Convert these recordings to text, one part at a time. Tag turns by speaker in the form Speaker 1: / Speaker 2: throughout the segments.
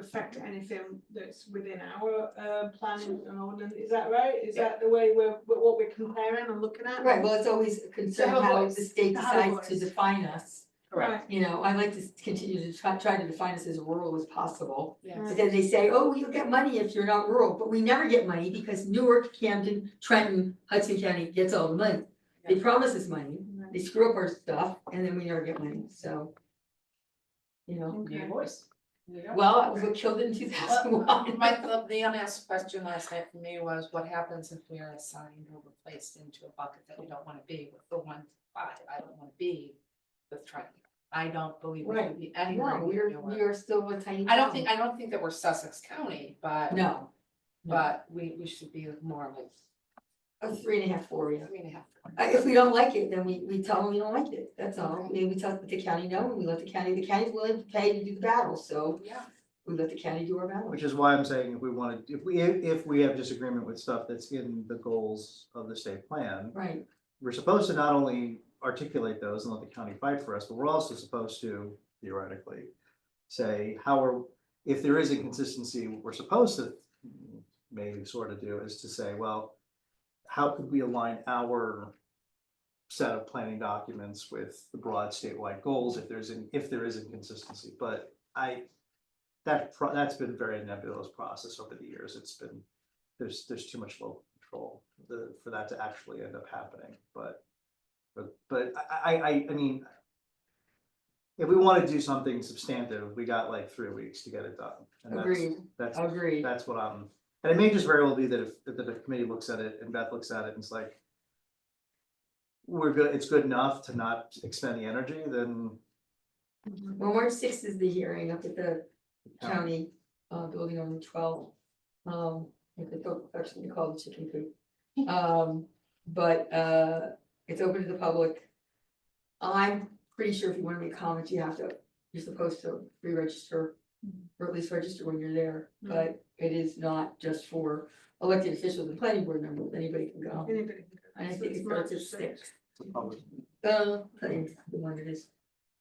Speaker 1: affect anything that's within our uh planning and ordinance, is that right? Is that the way we're, what we're comparing and looking at?
Speaker 2: Right, well, it's always a concern
Speaker 1: have a
Speaker 2: how the
Speaker 1: voice,
Speaker 2: state
Speaker 1: to have a
Speaker 2: decides to
Speaker 1: voice.
Speaker 2: define us.
Speaker 1: Right.
Speaker 2: You know, I like to s- continue to try, try to define us as rural as possible.
Speaker 1: Yeah.
Speaker 2: But then they say, oh, you'll get money if you're not rural, but we never get money because Newark, Camden, Trenton, Hudson County gets all the money. They promise us money, they screw up our stuff, and then we never get money, so. You know,
Speaker 3: Need a
Speaker 1: Okay.
Speaker 3: voice. There you go.
Speaker 2: well, that was what killed it in two thousand one.
Speaker 3: My, the- the unasked question last night for me was, what happens if we are assigned or replaced into a bucket that we don't wanna be with the one to five, I don't wanna be with Triton. I don't believe we
Speaker 2: Right.
Speaker 3: can be anywhere
Speaker 2: No,
Speaker 3: near
Speaker 2: we're, we
Speaker 3: Newark.
Speaker 2: are still a tiny.
Speaker 3: I don't think,
Speaker 2: town.
Speaker 3: I don't think that we're Sussex County, but,
Speaker 2: No,
Speaker 3: but we, we should be more like
Speaker 2: a three and a half, four, yeah.
Speaker 3: three and a half.
Speaker 2: Uh, If we don't like it, then we, we tell them we don't like it, that's all, we, we tell the county no, and we let the county, the county's willing to pay to do the battle, so
Speaker 3: Yeah.
Speaker 2: we let the county do our battle.
Speaker 4: Which is why I'm saying if we wanted, if we, if we have disagreement with stuff that's in the goals of the state plan,
Speaker 2: Right,
Speaker 4: we're supposed to not only articulate those and let the county fight for us, but we're also supposed to theoretically say how are, if there is inconsistency, what we're supposed to maybe sort of do is to say, well, how could we align our set of planning documents with the broad statewide goals if there's, in- if there is inconsistency? But I, that, pro- that's been a very nebulous process over the years. It's been, there's, there's too much local control the, for that to actually end up happening, but. But, but I, I, I, I mean. If we wanna do something substantive, we got like three weeks to get it done. and that's-
Speaker 2: agreed,
Speaker 4: That's,
Speaker 2: agreed,
Speaker 4: that's what I'm, and it may just very well be that if, that the committee looks at it and Beth looks at it and it's like. We're good, it's good enough to not expend the energy, then.
Speaker 1: Mm-hmm.
Speaker 2: well, March sixth is the hearing up at the
Speaker 4: um,
Speaker 2: county, uh, building on the twelve. Um, I think it's actually called the chicken coop, um, but, uh, it's open to the public. I'm pretty sure if you wanna make comments, you have to, you're supposed to re-register, or at least register when you're there, but it is not just for elected officials and planning board members, anybody can go.
Speaker 1: Anybody can go.
Speaker 2: And I
Speaker 1: So
Speaker 2: think
Speaker 1: it's
Speaker 2: it
Speaker 1: March
Speaker 2: starts at six.
Speaker 1: sixth.
Speaker 4: it's a public-
Speaker 2: Uh, I think it's the one it is.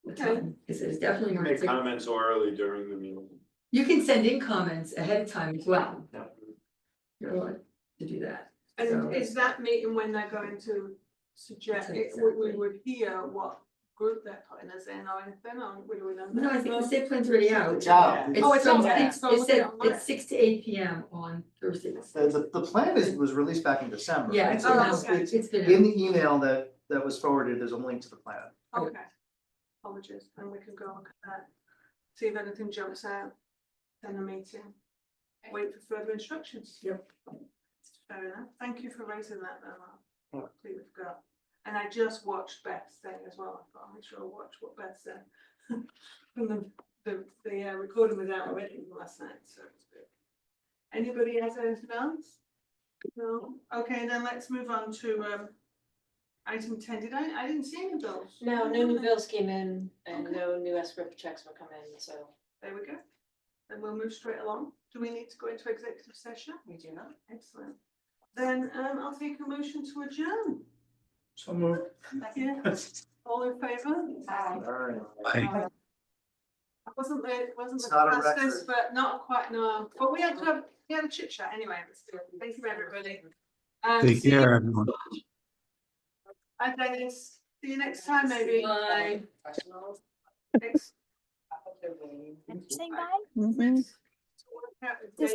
Speaker 2: What
Speaker 1: Okay.
Speaker 2: time? It's it's definitely.
Speaker 5: You can
Speaker 2: March
Speaker 5: Make
Speaker 2: 6th.
Speaker 5: comments orally during the meeting.
Speaker 2: You can send in comments ahead of time as well.
Speaker 5: No.
Speaker 2: You're allowed to do that. So-
Speaker 1: And is that meeting when they're going to suggest,
Speaker 2: That's
Speaker 1: it- we we
Speaker 2: exactly.
Speaker 1: would hear what group they're putting us in or anything, or would we know?
Speaker 2: No, I
Speaker 1: that?
Speaker 2: think the site plan's already out.
Speaker 3: job.
Speaker 1: Oh,
Speaker 2: It's
Speaker 1: it's
Speaker 2: from
Speaker 1: all right.
Speaker 2: six,
Speaker 1: So
Speaker 2: it
Speaker 1: look
Speaker 2: said
Speaker 1: at it.
Speaker 2: it's six to eight P M on Thursday.
Speaker 4: The, the, the plan is, was released back in December.
Speaker 2: Yeah,
Speaker 4: right?
Speaker 2: it's
Speaker 4: So
Speaker 2: been
Speaker 1: Oh,
Speaker 2: out,
Speaker 4: it's-
Speaker 1: okay.
Speaker 4: it's-
Speaker 2: it's been
Speaker 4: In
Speaker 2: out.
Speaker 4: the email that, that was forwarded, there's a link to the plan.
Speaker 1: Okay. Apologies, and we can go look at that, see if anything jumps out, then a meeting, wait for further instructions.
Speaker 2: Yep.
Speaker 1: Fair enough, thank you for raising that, though, I
Speaker 4: Yeah.
Speaker 1: completely forgot, and I just watched Beth's thing as well, I thought, I'm sure I'll watch what Beth said. From the, the, the uh, recording was out already last night, so it's good. Anybody has anything else? No, okay, then let's move on to, um, item ten, did I, I didn't see any bills.
Speaker 6: No, no new bills came in and
Speaker 1: Okay.
Speaker 6: no new escrow checks were coming, so
Speaker 1: There we go. Then we'll move straight along. Do we need to go into executive session?
Speaker 3: We do not.
Speaker 1: Excellent. Then um I'll take a motion to adjourn.
Speaker 4: So moved.
Speaker 1: Yeah, all in favour?
Speaker 3: Aye.
Speaker 4: All right.
Speaker 1: I wasn't the, wasn't the
Speaker 4: It's not a
Speaker 1: fastest, but not quite, no, but we had to have, we had a chit chat anyway. Let's do it. Thank you, everybody. Um,
Speaker 7: Take
Speaker 1: see you-
Speaker 7: care, everyone.
Speaker 1: Bye, Dennis. See you next time, maybe.
Speaker 2: Bye.
Speaker 3: Professionals,
Speaker 1: Thanks.
Speaker 3: I hope they're winning.
Speaker 8: Saying bye? Mm-hmm.
Speaker 1: To work out the
Speaker 8: Just-